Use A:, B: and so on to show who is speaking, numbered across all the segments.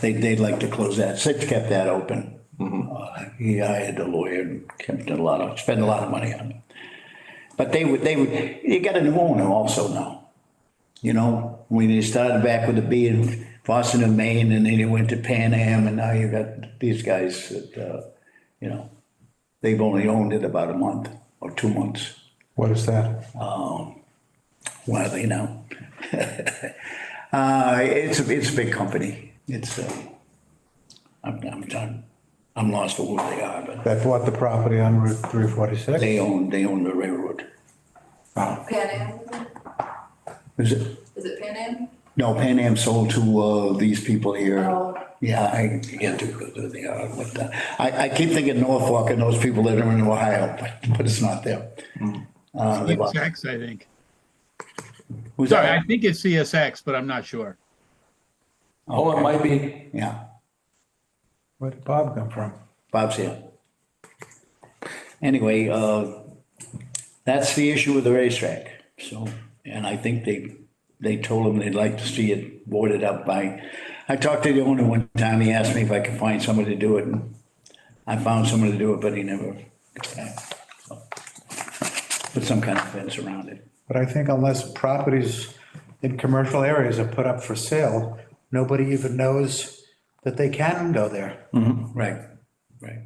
A: they'd, they'd like to close that. Sid kept that open. Uh, He hired a lawyer and kept a lot of, spent a lot of money on it. But they would, they would, you got a new owner also now. You know, when you started back with the B in Boston and Maine, and then you went to Pan Am, and now you got these guys that, uh, you know, they've only owned it about a month or two months.
B: What is that?
A: Why are they now? Uh, it's, a it's a big company. It's, uh, I'm, I'm, I'm, I'm lost for who they are, but
B: That bought the property on Route 346?
A: they own, they own the railroad.
C: Pan Am,
A: Is it?
C: is it Pan Am?
A: No, Pan Am sold to, uh, these people here.
C: Oh.
A: Yeah, I get to, who they are, what the, I, I keep thinking Norfolk and those people that are in Ohio, but, but it's not them. Uh, they bought-
D: CSX, I think.
A: who's
D: Sorry, I
A: that?
D: think it's CSX, but I'm not sure.
E: Oh, it might be.
A: Yeah,
B: Where did Bob come from?
A: Bob's here. Anyway, uh, that's the issue with the racetrack, so, and I think they, they told him they'd like to see it boarded up by, I talked to the owner one time, he asked me if I could find somebody to do it, and I found somebody to do it, but he never, so, put some kind of fence around it.
B: But I think unless properties in commercial areas are put up for sale, nobody even knows that they can go there.
A: Right, right.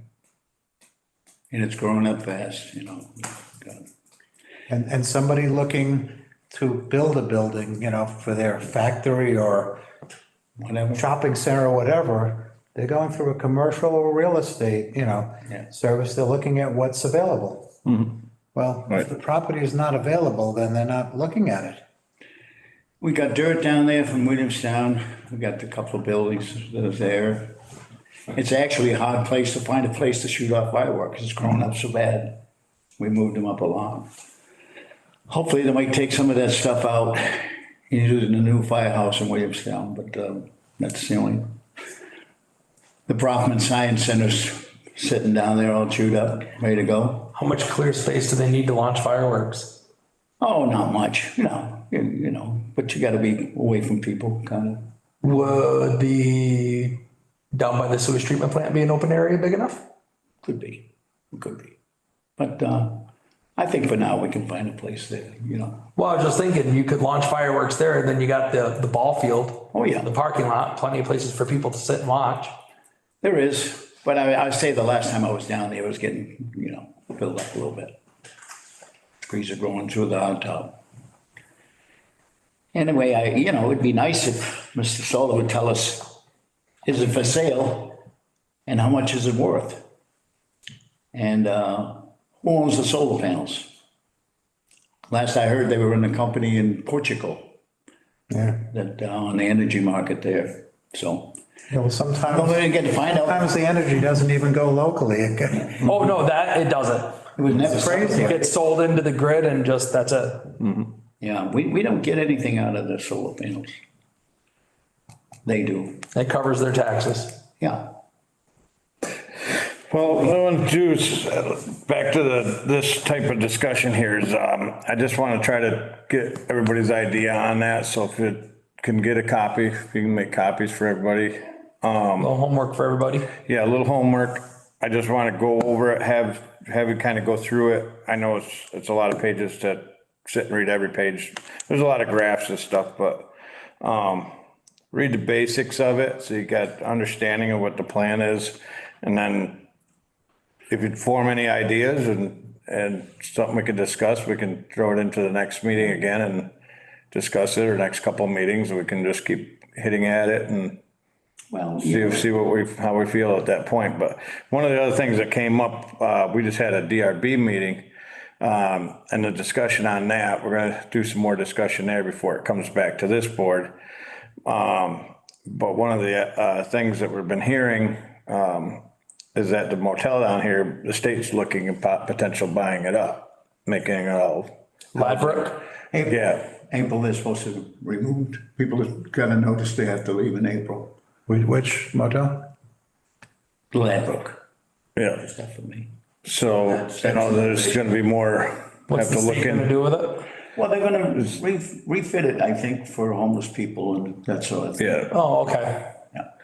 A: And it's growing up fast, you know. God.
B: And, and somebody looking to build a building, you know, for their factory or
A: Whatever.
B: shopping center or whatever, they're going through a commercial or real estate, you know,
A: Yeah.
B: service, they're looking at what's available. Well, if the property is not available, then they're not looking at it.
A: We got dirt down there from Williamstown. We got the couple of buildings that are there. It's actually a hard place to find a place to shoot off fireworks. It's grown up so bad. We moved them up a lot. Hopefully they might take some of that stuff out and use it in the new firehouse in Williamstown, but um, that's the only. The Brofman Science Center's sitting down there all chewed up, ready to go.
E: How much clear space do they need to launch fireworks?
A: Oh, not much, no, you, you know, but you gotta be away from people, kind of.
E: Would the, down by the sewage treatment plant be an open area big enough?
A: Could be, could be. But uh, I think for now, we can find a place there, you know.
E: Well, I was just thinking, you could launch fireworks there, and then you got the, the ball field.
A: Oh, yeah.
E: The parking lot, plenty of places for people to sit and watch.
A: There is, but I, I say the last time I was down there, it was getting, you know, filled up a little bit. Trees are growing through the hot top. Anyway, I, you know, it'd be nice if Mr. Solar would tell us, is it for sale? And how much is it worth? And uh, who owns the solar panels? Last I heard, they were in a company in Portugal.
B: Yeah.
A: that uh, on the energy market there, so.
B: Yeah, well, sometimes.
A: But we didn't get to find out,
B: Sometimes the energy doesn't even go locally. It go-
E: Oh, no, that, it doesn't.
A: it was never.
B: crazy.
E: It gets sold into the grid and just, that's it.
A: Yeah, we, we don't get anything out of the solar panels. They do,
E: It covers their taxes.
A: yeah.
F: Well, what I want to do is, uh, back to the, this type of discussion here is, um, I just want to try to get everybody's idea on that. So if you can get a copy, if you can make copies for everybody.
E: A little homework for everybody.
F: Yeah, a little homework. I just want to go over it, have, have you kind of go through it. I know it's, it's a lot of pages to sit and read every page. There's a lot of graphs and stuff, but, um, read the basics of it. So you got understanding of what the plan is. And then if you'd form any ideas and, and something we could discuss, we can throw it into the next meeting again and discuss it or next couple of meetings. We can just keep hitting at it and
A: Well,
F: see, see what we, how we feel at that point. But one of the other things that came up, uh, we just had a DRB meeting. Um, and the discussion on that, we're gonna do some more discussion there before it comes back to this board. Um, but one of the, uh, things that we've been hearing, um, is that the motel down here, the state's looking at pot- potential buying it up, making it all,
E: Ladbrook.
F: yeah.
A: April, they're supposed to remove, people have got a notice they have to leave in April.
B: Wh- Which motel?
A: Gladbrook,
F: Yeah,
A: stuff for me.
F: so, you know, there's gonna be more,
E: What's
F: have
E: the
F: to look
E: state
F: in.
E: gonna do with it?
A: Well, they're gonna re- refit it, I think, for homeless people and that sort of thing.
F: Yeah,
E: Oh, okay.
A: Yeah.